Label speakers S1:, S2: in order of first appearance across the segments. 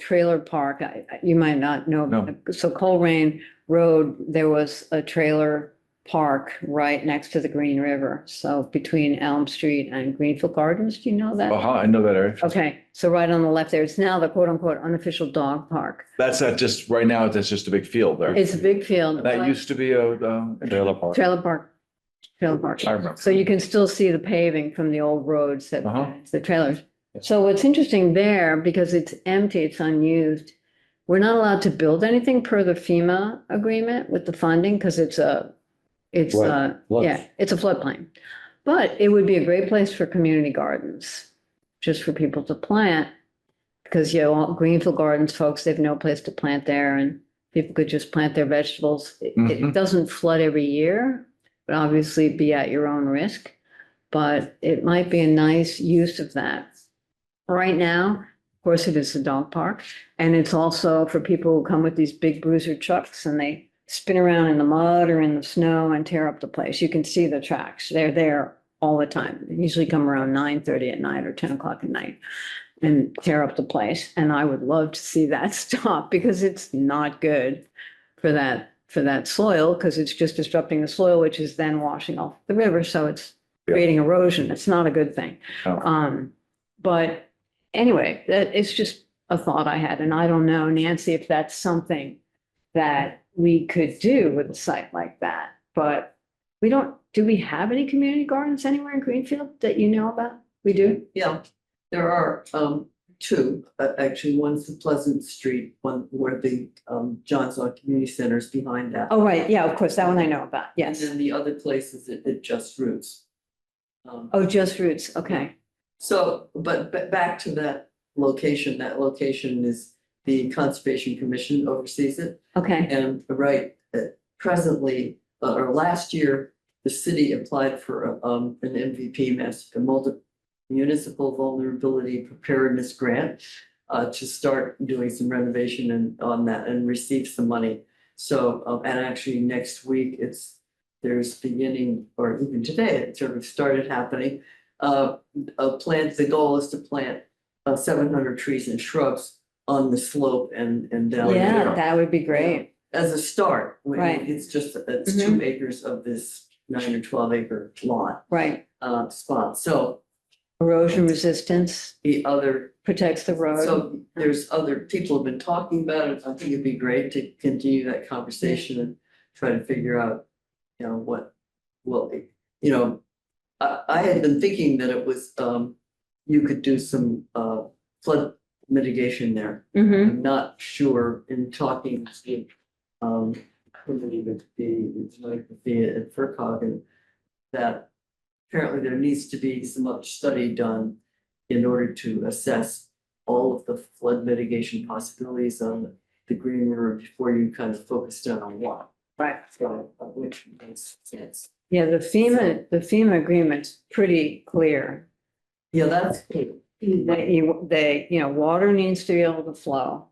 S1: trailer park, I, I- you might not know.
S2: No.
S1: So Colerain Road, there was a trailer park right next to the Green River. So between Elm Street and Greenfield Gardens, do you know that?
S2: Aha, Uh-huh, I know that area.
S1: Okay, so right on the left there, it's now the quote unquote unofficial dog park.
S2: That's not just, right now, that's just a big field there.
S1: It's a big field.
S2: That
S1: but-
S2: used to be a, um. Trailer park.
S1: Trailer park. Trailer park.
S2: I remember.
S1: So you can still see the paving from the old roads that,
S2: Uh-huh.
S1: the trailers.
S2: Yeah.
S1: So what's interesting there, because it's empty, it's unused, we're not allowed to build anything per the FEMA agreement with the funding because it's a, it's
S3: Right.
S1: a,
S3: Look,
S1: yeah, it's a floodplain. But it would be a great place for community gardens, just for people to plant. Because, you know, all Greenfield Gardens folks, they have no place to plant there and people could just plant their vegetables. It- It
S2: Mhm.
S1: doesn't flood every year, but obviously be at your own risk. But it might be a nice use of that. Right now, of course, it is a dog park. And it's also for people who come with these big bruiser trucks and they spin around in the mud or in the snow and tear up the place. You can see the tracks. They're there all the time. They usually come around nine thirty at night or ten o'clock at night and tear up the place. And I would love to see that stop because it's not good for that, for that soil, because it's just disrupting the soil, which is then washing off the river. So it's
S2: Yeah.
S1: creating erosion. It's not a good thing.
S2: No.
S1: Um, but anyway, that, it's just a thought I had, and I don't know, Nancy, if that's something that we could do with a site like that, but we don't, do we have any community gardens anywhere in Greenfield that you know about? We do?
S4: Yeah, there are um two, uh, actually, one's the Pleasant Street, one where the um Johnson Community Center is behind that.
S1: Oh, right, yeah, of course, that one I know about, yes.
S4: And then the other place is at at Just Roots. Um,
S1: Oh, just roots, okay.
S4: so, but but back to that location, that location is the Conservation Commission oversees it.
S1: Okay,
S4: And right, uh, presently, uh, or last year, the city applied for um, an MVP, mas- a multi municipal vulnerability preparedness grant uh, to start doing some renovation and on that and receive some money. So, um, and actually next week, it's, there's beginning, or even today, it sort of started happening. Uh, uh, plant, the goal is to plant uh, seven hundred trees and shrubs on the slope and and down. the
S1: yeah,
S4: hill
S1: that would be great.
S4: as a start. when
S1: Right.
S4: It's just, it's two acres of this nine or twelve acre lot,
S1: Right,
S4: uh, spot. So
S1: erosion resistance
S4: the other,
S1: protects the road.
S4: so there's other people have been talking about it. I think it'd be great to continue that conversation and try to figure out, you know, what will, you know, I, I had been thinking that it was, um, you could do some, uh, flood mitigation there.
S1: hmm
S4: I'm not sure in talking to, um, somebody with the, it's like with the, at FERCog and that apparently there needs to be some much study done in order to assess all of the flood mitigation possibilities on the Green River before you kind of focus down on one.
S1: right.
S4: So, uh, which makes sense.
S1: Yeah, the FEMA, the FEMA agreement's pretty clear.
S4: Yeah, that's.
S1: That you, they, you know, water needs to be able to flow.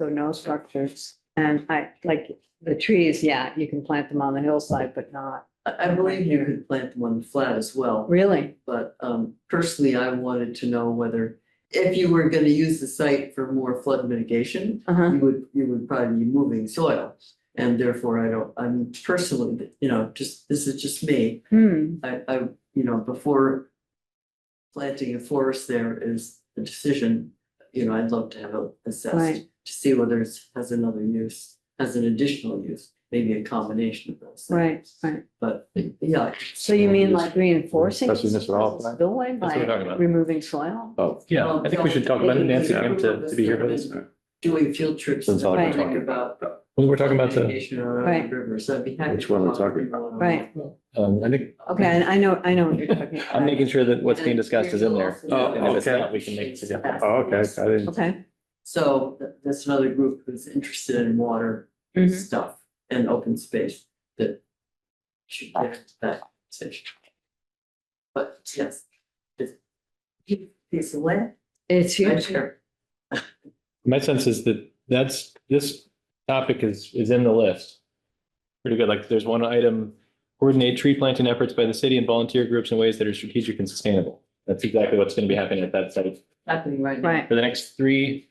S1: So no structures. And I, like, the trees, yeah, you can plant them on the hillside, but not
S4: I, I believe you could plant them on the flat as well.
S1: really.
S4: But um personally, I wanted to know whether if you were gonna use the site for more flood mitigation,
S1: Uh-huh.
S4: you would, you would probably be moving soil. And therefore, I don't, I'm personally, you know, just, this is just me.
S1: Hmm,
S4: I I, you know, before planting a forest there is a decision, you know, I'd love to have it assessed
S1: Right.
S4: to see whether it has another use, has an additional use, maybe a combination of those. things.
S1: right, right.
S4: But yeah,
S1: So you mean like reinforcing?
S2: That's what this is all about.
S1: Spillway
S5: That's what we're talking
S1: by
S5: about.
S1: removing soil?
S2: Oh,
S5: Yeah, I think we should talk about it. Nancy
S4: Yeah.
S5: came to, to be here for this.
S4: doing field trips.
S3: That's all
S1: I've been
S4: and
S3: talking
S4: About
S5: Well, we're talking about the,
S4: Irrigation around
S1: Right.
S4: the river, so I'd be happy.
S3: Which
S4: to
S3: one are we
S4: talk
S3: talking
S4: to you on-
S1: Right,
S5: um, I think,
S1: okay, I I know, I know what you're talking about.
S5: I'm making sure that what's being discussed is in there.
S4: Oh,
S5: And if it's
S2: okay.
S5: not, we can make it. yeah.
S2: Oh, okay, I didn't.
S1: Okay.
S4: So th- that's another group who's interested in water
S1: Mhm.
S4: stuff and open space that should get into that section. But yes. it's- Piece of land,
S1: It's
S4: I'm
S1: huge.
S4: sure.
S5: My sense is that that's, this topic is, is in the list. Pretty good. Like there's one item, coordinate tree planting efforts by the city and volunteer groups in ways that are strategic and sustainable. That's exactly what's going to be happening at that site.
S4: happening right now.
S1: Right,
S5: For the next three